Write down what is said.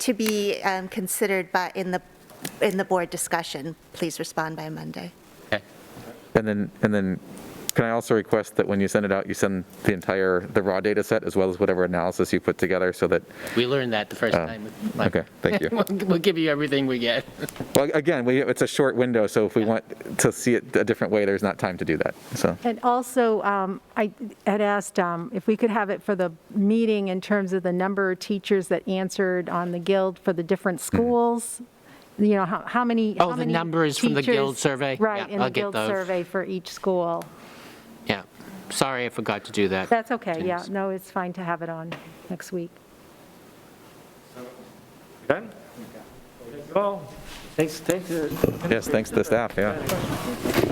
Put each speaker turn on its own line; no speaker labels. to be um, considered by, in the, in the board discussion. Please respond by Monday.
Okay.
And then, and then, can I also request that when you send it out, you send the entire, the raw data set as well as whatever analysis you put together so that,
We learned that the first time. with Mike.
Oh, okay, thank you.
We'll we'll give you everything we get.
Well, again, we, it's a short window, so if we want to see it a different way, there's not time to do that, so.
And also, um, I had asked um, if we could have it for the meeting in terms of the number of teachers that answered on the Guild for the different schools, you know, how how many,
Mm-hmm. Oh,
how
the
many
numbers from the Guild
teachers-
survey?
Right,
Yeah,
in the
I'll get
Guild
those.
survey for each school.
Yeah. Sorry, I forgot to do that.
That's okay, yeah,
Yes.
no, it's fine to have it on next week.
Okay? Well, thanks, thanks. uh,
Yes, thanks to the staff, yeah.